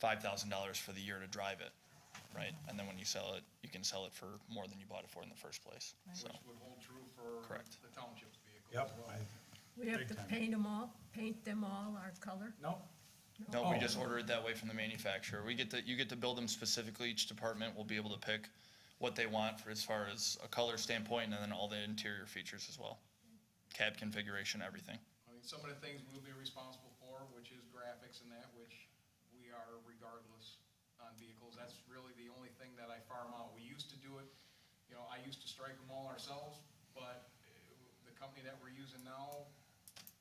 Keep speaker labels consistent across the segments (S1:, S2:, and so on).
S1: five thousand dollars for the year to drive it, right? And then when you sell it, you can sell it for more than you bought it for in the first place, so.
S2: Which would hold true for
S1: Correct.
S2: the township's vehicle.
S3: Yep,
S2: as well.
S3: I,
S4: We have
S3: Big
S4: to
S3: time.
S4: paint them all, paint them all our color?
S3: no,
S1: No, we
S3: Oh.
S1: just order it that way from the manufacturer. We get to, you get to build them specifically, each department will be able to pick what they want for as far as a color standpoint and then all the interior features as well. Cab configuration, everything.
S2: I mean, some of the things we'll be responsible for, which is graphics and that, which we are regardless on vehicles. That's really the only thing that I farm out. We used to do it, you know, I used to strike them all ourselves, but uh, the company that we're using now,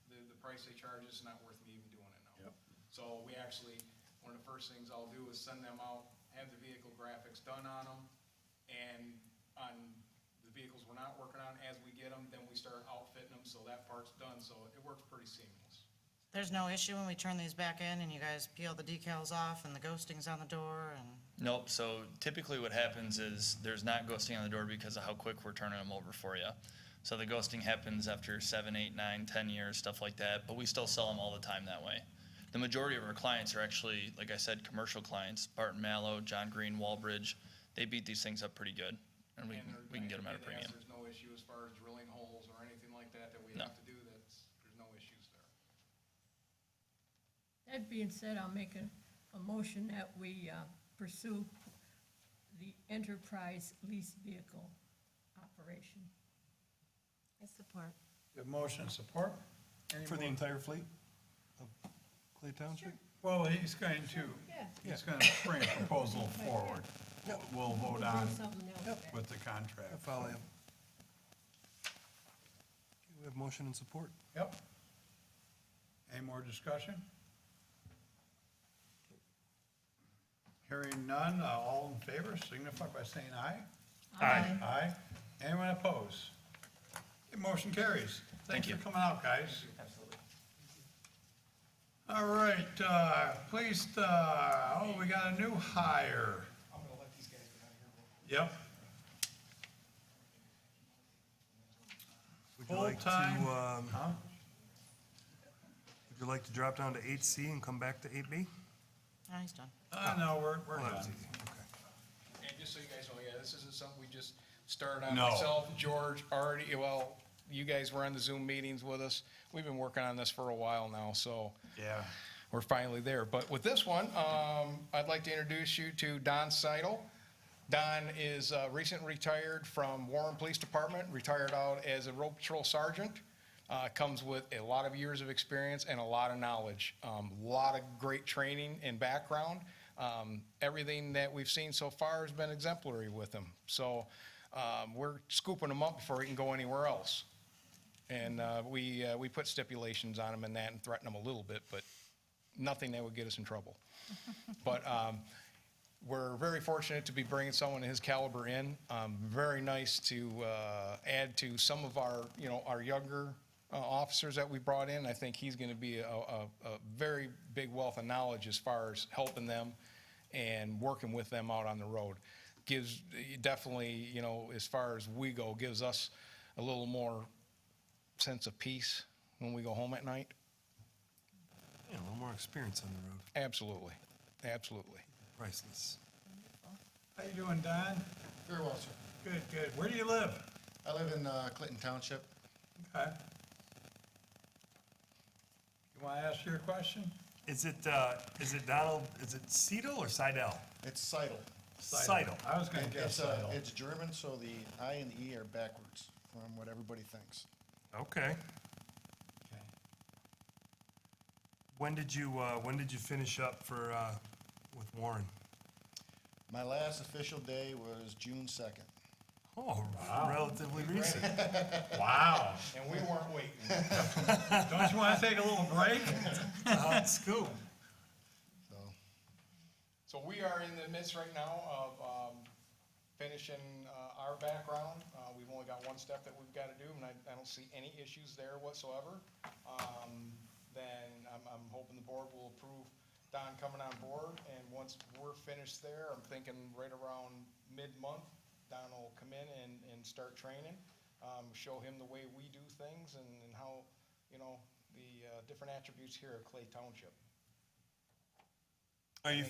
S2: the, the price they charge is not worth me even doing it now.
S3: Yep.
S2: So we actually, one of the first things I'll do is send them out, have the vehicle graphics done on them, and on the vehicles we're not working on, as we get them, then we start outfitting them, so that part's done, so it works pretty seamless.
S5: There's no issue when we turn these back in and you guys peel the decals off and the ghosting's on the door and,
S1: Nope, so typically what happens is there's not ghosting on the door because of how quick we're turning them over for you. So the ghosting happens after seven, eight, nine, ten years, stuff like that, but we still sell them all the time that way. The majority of our clients are actually, like I said, commercial clients, Barton Mallow, John Green, Wallbridge. They beat these things up pretty good and we,
S2: And
S1: can
S2: there-
S1: we can get
S2: I
S1: them at a
S2: did ask,
S1: premium.
S2: There's no issue as far as drilling holes or anything like that that we
S1: No.
S2: have to do, that's, there's no issues there.
S4: That being said, I'll make a, a motion that we uh, pursue the enterprise lease vehicle operation.
S5: I support.
S3: the motion and support. Any
S6: For the
S3: more?
S6: entire fleet of Clay Township?
S3: Well, he's going to,
S4: Yeah.
S3: he's gonna bring a proposal forward. We'll vote
S4: We'll
S3: on
S4: do something else then.
S3: with the contract.
S6: I follow you. um, Okay, We have motion and support.
S3: Yep. Any more discussion? Hearing none, uh, all in favor signify by saying aye. Aye. Aye. Anyone opposed? Motion carries.
S1: Thank
S3: Thanks
S1: you.
S3: for coming out, guys.
S1: Absolutely.
S3: All right, uh, please, uh, oh, we got a new hire.
S2: I'm gonna let these guys get out of here.
S3: Yep,
S6: Would you like to,
S3: Full-time.
S6: um,
S3: huh?
S6: would you like to drop down to eight C and come back to eight B?
S5: Oh, he's done.
S3: Uh, no, we're, we're
S6: Well, that
S3: done.
S6: was easy, okay.
S2: And just so you guys know, yeah, this isn't something we just started on.
S3: No.
S2: Myself, George, already, well, you guys were on the Zoom meetings with us. We've been working on this for a while now, so
S3: Yeah.
S2: we're finally there. But with this one, um, I'd like to introduce you to Don Seidel. Don is uh, recently retired from Warren Police Department, retired out as a road patrol sergeant. Uh, Comes with a lot of years of experience and a lot of knowledge, um, lot of great training and background. Um, Everything that we've seen so far has been exemplary with him. So um, we're scooping him up before he can go anywhere else. And uh, we, uh, we put stipulations on him and that and threatened him a little bit, but nothing that would get us in trouble. But um, we're very fortunate to be bringing someone of his caliber in. Um, Very nice to uh, add to some of our, you know, our younger uh, officers that we brought in. I think he's going to be a, a a very big wealth of knowledge as far as helping them and working with them out on the road. Gives, definitely, you know, as far as we go, gives us a little more sense of peace when we go home at night.
S6: Yeah, a little more experience on the road,
S2: Absolutely, absolutely.
S6: priceless.
S3: How you doing, Don?
S7: Very well, sir.
S3: Good, good. Where do you live?
S7: I live in uh, Clinton Township.
S3: Okay. You wanna ask your question?
S6: Is it, uh, is it Donald, is it Seidel or Seidel?
S7: It's Seidel.
S6: Seidel.
S3: I was gonna
S7: And
S3: guess
S7: it's, uh,
S3: Seidel.
S7: It's German, so the I and the E are backwards from what everybody thinks.
S6: Okay.
S3: Okay.
S6: When did you, uh, when did you finish up for, uh, with Warren?
S7: My last official day was June second.
S6: Oh, relatively recent.
S3: Wow.
S2: And we weren't waiting.
S3: Don't you wanna take a little break?
S6: Hot scoop.
S7: So,
S2: So we are in the midst right now of um, finishing uh, our background. Uh, We've only got one step that we've got to do, and I I don't see any issues there whatsoever. Um, Then I'm I'm hoping the board will approve Don coming on board, and once we're finished there, I'm thinking right around mid-month, Don will come in and and start training, um, show him the way we do things and and how, you know, the uh, different attributes here at Clay Township.
S6: Are you